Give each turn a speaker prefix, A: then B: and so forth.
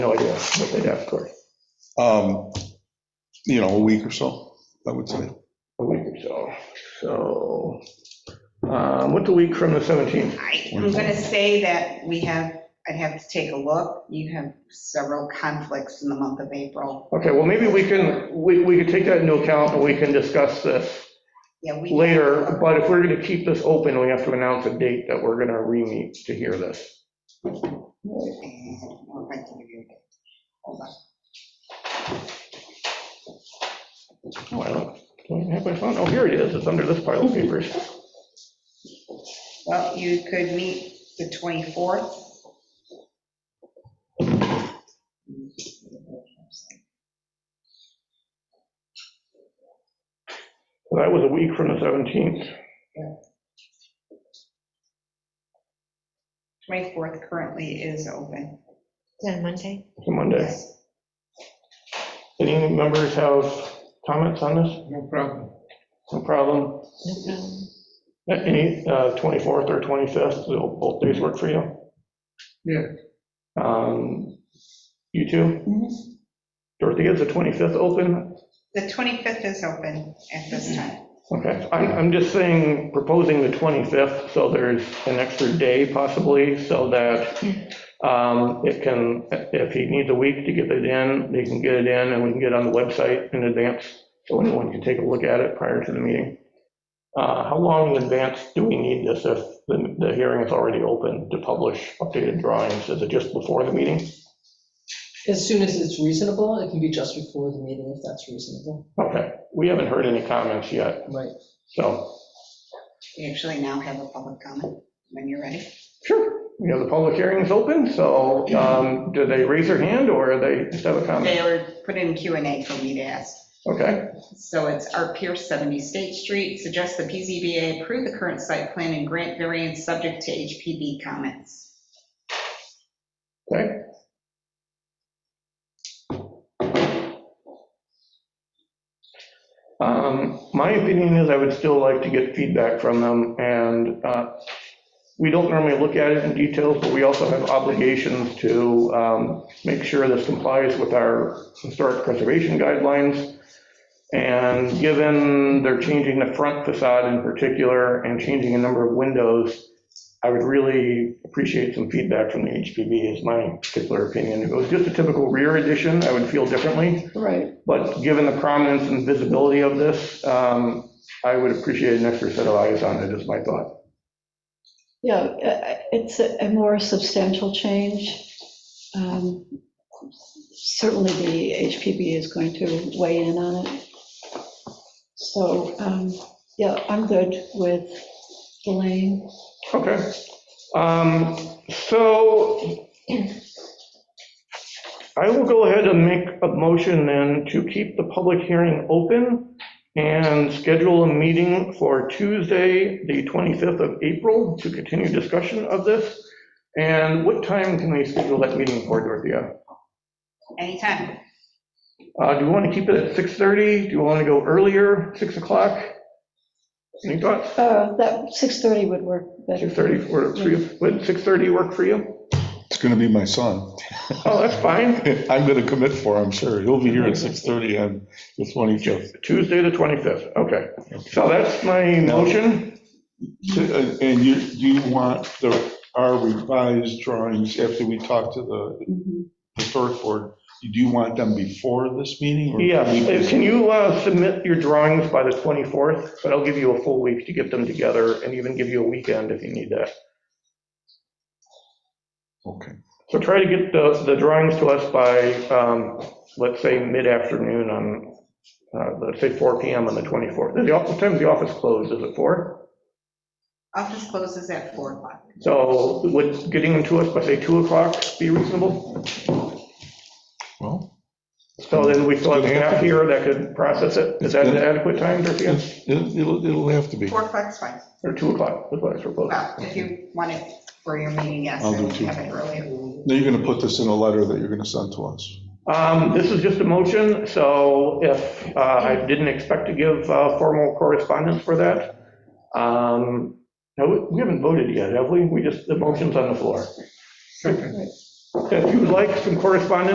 A: No idea what they'd have for
B: Um, You know, a week or so, I would say.
A: a week or so. So, um, what's a week from the 17th?
C: I- I'm going to say that we have, I'd have to take a look. You have several conflicts in the month of April.
A: Okay, well, maybe we can, we, we could take that into account and we can discuss this
C: Yeah, we.
A: later. But if we're gonna keep this open, we have to announce a date that we're gonna re-meet to hear this.
C: I'll write to give you a date. Hold on.
A: Oh, I don't, don't have my phone. Oh, here it is. It's under this pile of papers.
C: Well, you could meet the 24th.
A: So That was a week from the 17th.
C: 24th currently is open.
D: Is that a Monday?
A: It's a Monday. Any members have comments on this? No problem. No problem.
D: No problem.
A: Any, uh, 24th or 25th, will both days work for you?
E: Yeah.
A: Um, You too? Dorothy, is the 25th open?
C: The 25th is open at this time.
A: Okay, I'm, I'm just saying, proposing the 25th, so there's an extra day possibly, so that um, it can, if he needs a week to get it in, they can get it in, and we can get it on the website in advance, so anyone can take a look at it prior to the meeting. Uh, How long in advance do we need this if the, the hearing is already open to publish updated drawings? Is it just before the meeting?
F: As soon as it's reasonable, it can be just before the meeting if that's reasonable.
A: Okay, we haven't heard any comments yet,
F: Right.
A: so,
C: We actually now have a public comment when you're ready.
A: sure. You know, the public hearing is open, so um, do they raise their hand or they just have a comment?
C: They were put in Q and A for me to ask.
A: Okay,
C: So it's Art Pierce, 70 State Street, suggests the PZBA approve the current site plan and grant variance subject to HPB comments.
A: okay. Um, My opinion is I would still like to get feedback from them, and uh, we don't normally look at it in details, but we also have obligations to um, make sure this complies with our historic preservation guidelines. And given they're changing the front facade in particular and changing a number of windows, I would really appreciate some feedback from the HPB is my particular opinion. If it was just a typical rear addition, I would feel differently.
F: Right.
A: But given the prominence and visibility of this, um, I would appreciate an extra set of eyes on it, is my thought.
G: Yeah, uh, it's a a more substantial change. Um, Certainly the HPB is going to weigh in on it. So, um, yeah, I'm good with the lane.
A: Okay. Um, So I will go ahead and make a motion then to keep the public hearing open and schedule a meeting for Tuesday, the 25th of April, to continue discussion of this. And what time can we schedule that meeting for, Dorothea?
C: Anytime.
A: Uh, Do we want to keep it at 6:30? Do you want to go earlier, 6 o'clock? Any thoughts?
G: Uh, That 6:30 would work better.
A: 6:30 for, for you? would 6:30 work for you?
B: It's going to be my son.
A: Oh, that's fine.
B: I'm going to commit for, I'm sure. He'll be here at 6:30 on the 25th.
A: Tuesday, the 25th, okay. So that's my motion.
B: Uh, And you, you want the, our revised drawings after we talk to the
G: Mhm.
B: historic board? Do you want them before this meeting? or-
A: Yes, can you uh, submit your drawings by the 24th? But I'll give you a full week to get them together and even give you a weekend if you need that.
B: Okay.
A: So try to get the, the drawings to us by, um, let's say, mid-afternoon on, uh, let's say 4 PM on the 24th. Is the office, time's the office closed, is it 4?
C: Office closes at 4 o'clock.
A: So would getting them to us by, say, 2 o'clock be reasonable?
B: Well,
A: So then we still have staff here that could process it. Is that an adequate time, Dorothea?
B: it's- it'll, it'll- it'll have to be.
C: 4 o'clock's fine.
A: Or 2 o'clock, that's what I proposed.
C: Well, if you want it for your meeting, yes.
B: I'll do
C: and
B: two.
C: Have it earlier.
B: Now you're going to put this in a letter that you're going to send to us.
A: Um, This is just a motion, so if, uh, I didn't expect to give uh, formal correspondence for that. Um, No, we- we haven't voted yet, have we? We just, the motion's on the floor. If you would like some correspondence